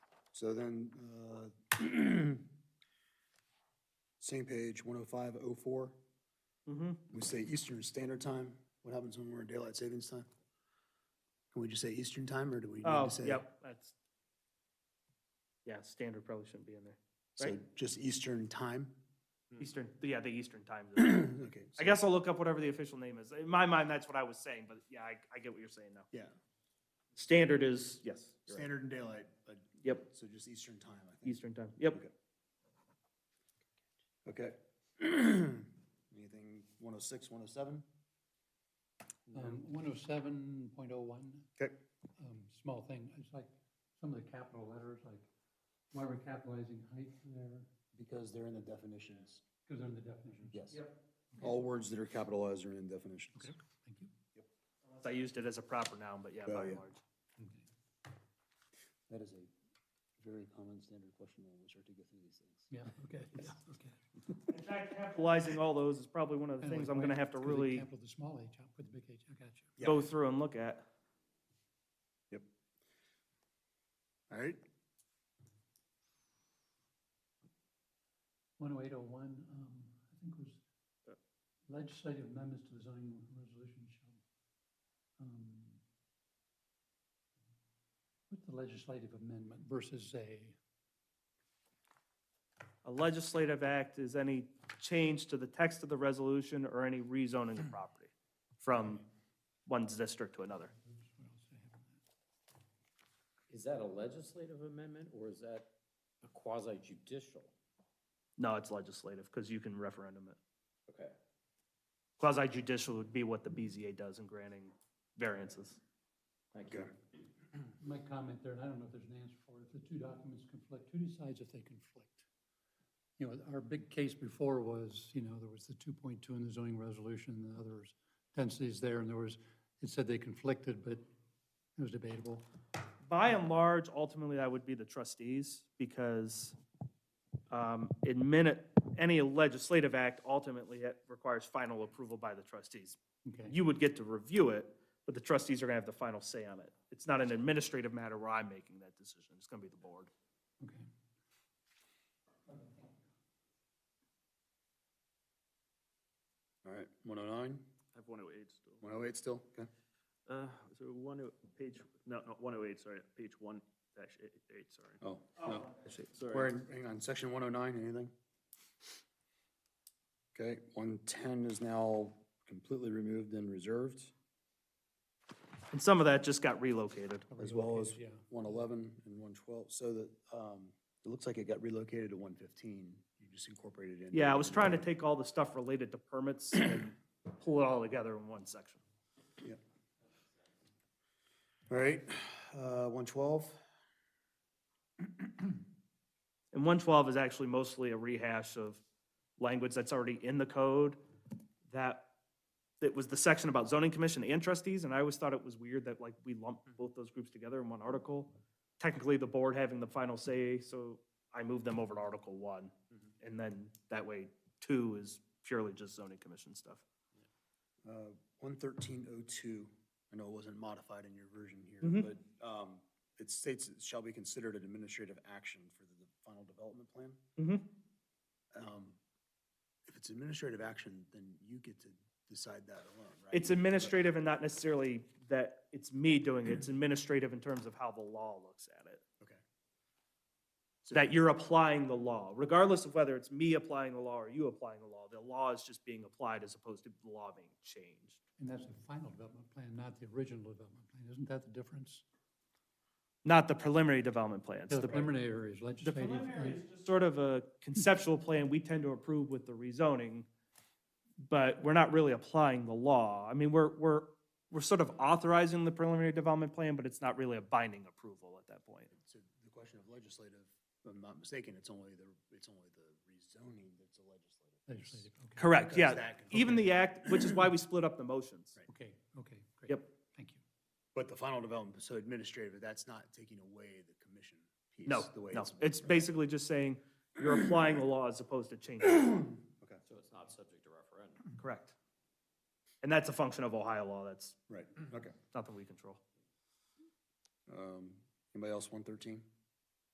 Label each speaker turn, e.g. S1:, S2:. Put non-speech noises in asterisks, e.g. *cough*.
S1: So then, uh, *clears throat* same page, 10504,
S2: Mm-hmm.
S1: we say Eastern Standard Time. What happens when we're in daylight savings time? Can we just say Eastern Time, or do we need
S2: Oh,
S1: to say?
S2: yep, that's, yeah, standard probably shouldn't be in there.
S1: So
S2: right.
S1: just Eastern Time? *clears throat*
S2: Eastern, yeah, the Eastern time. zone.
S1: Okay.
S2: I
S1: so-
S2: guess I'll look up whatever the official name is. In my mind, that's what I was saying, but yeah, I, I get what you're saying now.
S1: Yeah,
S2: Standard is, yes. you're right.
S1: standard and daylight, but,
S2: Yep,
S1: so just Eastern Time, I think.
S2: Eastern time, yep.
S1: Okay. Okay. *clears throat* Anything 106, 107?
S3: Um, one oh seven point oh one,
S1: Okay.
S3: um, small thing, it's like some of the capital letters, like, why we're capitalizing height there,
S1: Because they're in the definitions.
S3: because they're in the definitions.
S1: Yes.
S2: Yep.
S1: All words that are capitalized are in definitions.
S3: Okay. Thank you.
S2: Unless I used it as a proper noun, but yeah,
S1: Well,
S2: by and
S1: yeah.
S2: large.
S3: Okay.
S1: That is a very common standard question when we start to go through these things.
S3: Yeah, *laughs* okay, yeah, okay.
S2: In fact, capitalizing all those is probably one of the
S3: Kinda
S2: things
S3: like
S2: I'm gonna
S3: why-
S2: have to
S3: 'cause they
S2: really
S3: Capital the small h, out, put the big H, I got you.
S1: Yeah.
S2: go through and look at.
S1: All right,
S3: One oh eight oh one, um, I think was
S1: Uh.
S3: legislative amendments to the zoning resolution shall, um, what's the legislative amendment versus a,
S2: A legislative act is any change to the text of the resolution or any rezoning of property from one's district to another.
S3: what else do I have on that?
S4: Is that a legislative amendment or is that a quasi judicial?
S2: No, it's legislative, because you can referendum it.
S4: Okay.
S2: Quasi judicial would be what the BZA does in granting variances.
S4: Thank
S1: okay.
S4: you.
S3: My comment there, and I don't know if there's an answer for it, if the two documents conflict, who decides if they conflict? You know, our big case before was, you know, there was the two point two in the zoning resolution, and the others, densities there, and there was, it said they conflicted, but it was debatable.
S2: By and large, ultimately, that would be the trustees, because um, in minute, any legislative act ultimately it requires final approval by the trustees.
S3: Okay,
S2: You would get to review it, but the trustees are gonna have the final say on it. It's not an administrative matter where I'm making that decision, it's gonna be the board.
S3: okay.
S1: All right, 109,
S5: I have 108 still.
S1: 108 still, okay.
S5: Uh, so one, oh- page, no, not 108, sorry, page 1 dash 8, sorry.
S1: Oh, no,
S5: Sorry.
S1: we're in, hang on, section 109, anything? Okay, 110 is now completely removed and reserved,
S2: And some of that just got relocated.
S1: as well as
S3: Relocated,
S1: 111 and 112, so that, um, it looks like it got relocated to 115. You just incorporated it in.
S2: Yeah, I was trying to take all the stuff related to permits and pull it all together in one section.
S1: All right, uh, 112,
S2: And one twelve is actually mostly a rehash of language that's already in the code that, that was the section about zoning commission and trustees, and I always thought it was weird that like we lumped both those groups together in one article. Technically, the board having the final say, so I moved them over to Article One. And then that way, two is purely just zoning commission stuff.
S1: uh, 11302, I know it wasn't modified in your version here,
S2: Mhm.
S1: but, um, it states it shall be considered an administrative action for the final development plan.
S2: Mm-hmm.
S1: um, If it's administrative action, then you get to decide that alone, right?
S2: It's administrative and not necessarily that it's me doing it, it's administrative in terms of how the law looks at it.
S1: Okay.
S2: That you're applying the law, regardless of whether it's me applying the law or you applying the law, the law is just being applied as opposed to the law being changed.
S3: And that's the final development plan, not the original development plan, isn't that the difference?
S2: Not the preliminary development plans.
S3: The
S2: The
S3: preliminary area is
S2: the
S3: legislative.
S2: preliminary is just sort of a conceptual plan we tend to approve with the rezoning, but we're not really applying the law. I mean, we're, we're, we're sort of authorizing the preliminary development plan, but it's not really a binding approval at that point.
S1: So the question of legislative, if I'm not mistaken, it's only the, it's only the rezoning that's a legislative. piece.
S3: Legislative, okay,
S2: Correct,
S1: Because
S2: yeah.
S1: that can-
S2: Even the act, which is why we split up the motions.
S1: Right.
S3: okay, okay, great.
S2: Yep.
S3: Thank you.
S1: But the final development, so administrative, that's not taking away the commission piece.
S2: No,
S1: the way
S2: no, it's
S1: basically
S2: basically just saying you're applying the law as opposed to changing. it.
S4: So it's not subject to referendum?
S2: Correct. And that's a function of Ohio law, that's
S1: Right, okay.
S2: nothing we control.
S1: Um, Anybody else, 113?